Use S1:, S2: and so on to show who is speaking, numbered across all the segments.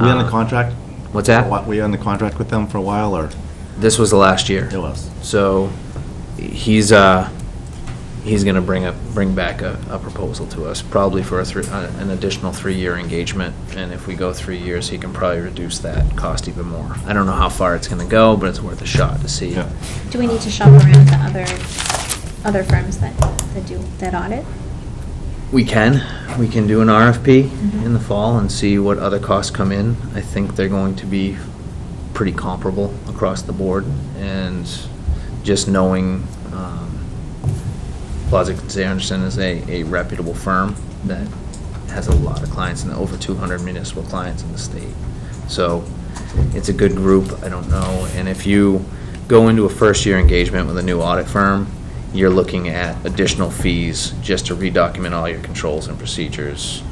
S1: We on the
S2: Uh,
S1: contract?
S2: What's that?
S1: Wa- We on the contract with them for a while, or?
S2: This was the last year.
S1: It was.
S2: So he's, uh, he's gonna bring up, bring back a, a proposal to us, probably for a three, uh, an additional three-year engagement. And if we go three years, he can probably reduce that cost even more. I don't know how far it's gonna go, but it's worth a shot to see.
S1: Yeah.
S3: Do we need to shop around to other, other firms that, that do, that audit?
S2: We can, we can do an RFP in
S3: Mhm.
S2: the fall and see what other costs come in. I think they're going to be pretty comparable across the board, and just knowing um, Plaza Anderson is a, a reputable firm that has a lot of clients, and over 200 municipal clients in the state. So it's a good group, I don't know, and if you go into a first-year engagement with a new audit firm, you're looking at additional fees just to redocument all your controls and procedures.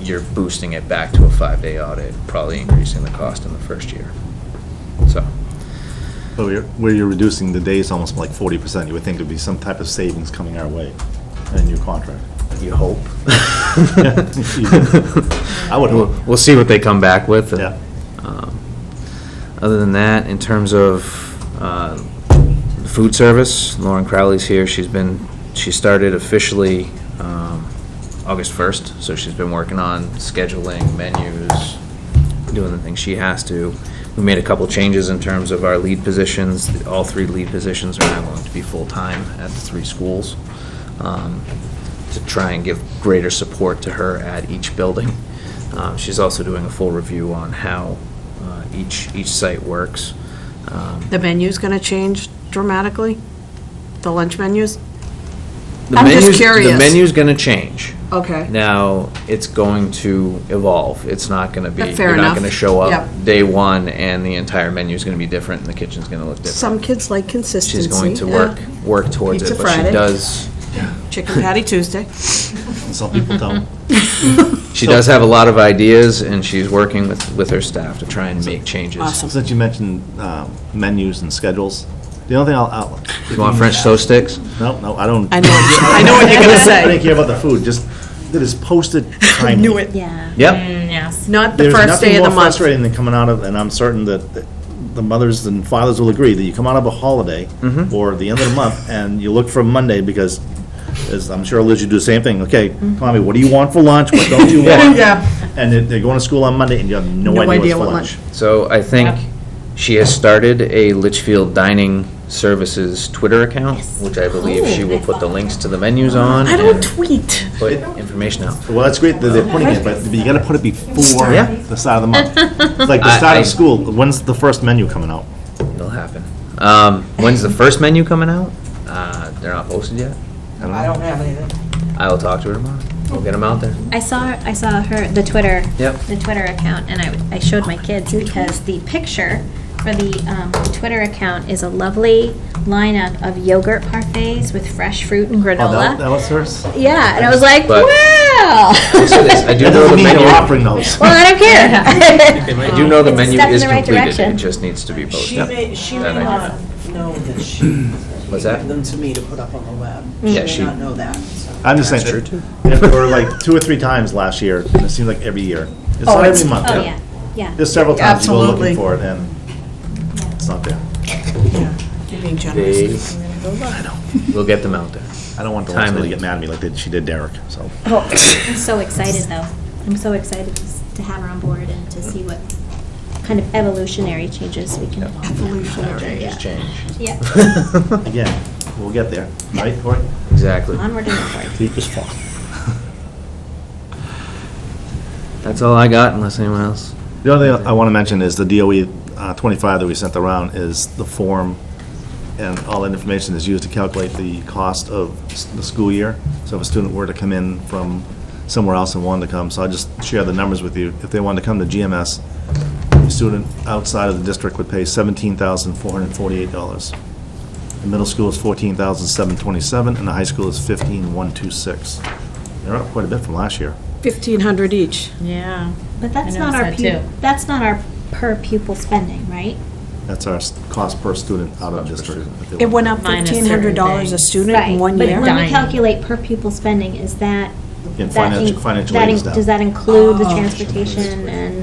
S2: You're boosting it back to a five-day audit, probably increasing the cost in the first year. So,
S1: So you're- where you're reducing the days almost like 40%, you would think there'd be some type of savings coming our way in a new contract.
S2: you hope.
S1: I would
S2: We'll-
S1: hope.
S2: We'll see what they come back with.
S1: Yeah.
S2: Um, Other than that, in terms of uh, food service, Lauren Crowley's here. She's been, she started officially um, August 1st, so she's been working on scheduling menus, doing the things she has to. We made a couple changes in terms of our lead positions. All three lead positions are now going to be full-time at the three schools um, to try and give greater support to her at each building. Um, She's also doing a full review on how uh, each, each site works. Um,
S4: The menu's going to change dramatically? The lunch menus?
S2: the
S4: I'm just
S2: menu's- The
S4: curious.
S2: menu's going to change.
S4: Okay.
S2: Now, it's going to evolve. It's not going to be,
S4: Fair
S2: you're not
S4: enough.
S2: going to show up
S4: Yep.
S2: day one and the entire menu's going to be different and the kitchen's going to look different.
S4: Some kids like
S2: She's
S4: consistency.
S2: going to work, work towards it,
S4: Pizza
S2: but she
S4: Friday.
S2: does,
S4: Chicken patty Tuesday.
S1: Some people don't.
S2: she
S1: So-
S2: does have a lot of ideas and she's working with, with her staff to try and make changes.
S4: Awesome.
S1: Since you mentioned um, menus and schedules, the only thing I'll- I'll.
S2: You want French toast sticks?
S1: No, no, I don't.
S4: I know, I know what you're going to
S1: I didn't
S4: say.
S1: care about the food, just, it is posted timing.
S4: Knew it.
S3: Yeah.
S2: Yep,
S4: Not the first day of the
S1: There's nothing more
S4: month.
S1: frustrating than coming out of, and I'm certain that that the mothers and fathers will agree, that you come out of a holiday
S2: Mm-hmm.
S1: or the end of the month, and you look for Monday, because, as I'm sure Liz, you do the same thing, okay, Tommy, what do you want for lunch, what don't you want?
S4: Mm-hmm. Yeah.
S1: And they- they're going to school on Monday, and you have no idea what's for lunch.
S2: so I think she has started a Litchfield Dining Services Twitter account, which I believe she will put the links to the menus on
S4: I don't
S2: and
S4: tweet.
S2: put information out.
S1: Well, that's great that they're putting it, but but you gotta put it before
S2: Yeah.
S1: the start of the month. It's Like the
S2: I-
S1: start
S2: I-
S1: of school, when's the first menu coming out?
S2: It'll happen. Um, when's the first menu coming out? Uh, they're not posted yet.
S5: I don't have anything.
S2: I will talk to her tomorrow. We'll get them out there.
S3: I saw, I saw her, the Twitter.
S2: Yep.
S3: The Twitter account, and I, I showed my kids because the picture for the, um, Twitter account is a lovely lineup of yogurt parfaits with fresh fruit and
S1: Oh, that- That
S3: granola.
S1: was hers?
S3: Yeah, and I was like,
S2: But-
S3: wow.
S2: I'll say this, I do know
S1: That
S2: the
S1: doesn't mean
S2: menu.
S1: they're offering those.
S3: Well, I don't care.
S2: I do know the
S3: It's a
S2: menu
S3: step in
S2: is
S3: the right
S2: completed.
S3: direction.
S2: It just needs to be
S5: She
S2: posted.
S5: may, she
S2: That
S5: may
S2: Oh, I
S5: not know that she
S2: What's
S5: gave
S2: that?
S5: them to me to put up on the web.
S2: Yeah,
S5: She
S2: she-
S5: may not know that, so.
S1: I'm just saying,
S2: That's
S1: that-
S2: true,
S1: and there were like two or three times last year, and it seems like every year. It's not every month.
S3: Oh, yeah, yeah.
S1: There's several times you go looking
S4: Absolutely.
S1: for it, and it's not there.
S4: You're being
S2: They-
S4: generous.
S2: We'll get them out there.
S1: I don't want the lady to
S2: Timely.
S1: get mad at me like that she did Derek, so.
S3: Oh, I'm so excited, though. I'm so excited to s- to have her on board and to see what kind of evolutionary changes we can. Evolutionary.
S2: Change, change.
S3: Yeah.
S1: Again, we'll get there, right, Cory?
S2: Exactly.
S3: Onward and upward.
S1: Deepest fall.
S2: That's all I got unless anyone else.
S1: The other thing I want to mention is the DOE uh, 25 that we sent around is the form, and all that information is used to calculate the cost of s- the school year. So if a student were to come in from somewhere else and wanted to come, so I'll just share the numbers with you. If they wanted to come to GMS, a student outside of the district would pay $17,448. The middle school is $14,727, and the high school is $15,126. They're up quite a bit from last year.
S4: 1,500 each.
S6: Yeah.
S3: But that's
S6: I
S3: not our,
S6: noticed that,
S3: pu-
S6: too.
S3: that's not our per pupil spending, right?
S1: That's our s- cost per student out of
S2: Cost per
S1: district.
S2: student.
S1: if they
S4: It
S1: want
S4: went
S1: to-
S4: up
S6: Minus
S4: $1,500 a
S6: certain
S4: student in
S3: Right,
S4: one
S3: But when
S4: year.
S3: we
S6: Dining.
S3: calculate per pupil spending, is that?
S1: In
S3: that
S1: financial-
S3: in-
S1: financial
S3: that
S1: aid
S3: in-
S1: is down.
S3: Does that include the
S4: Oh.
S3: transportation and?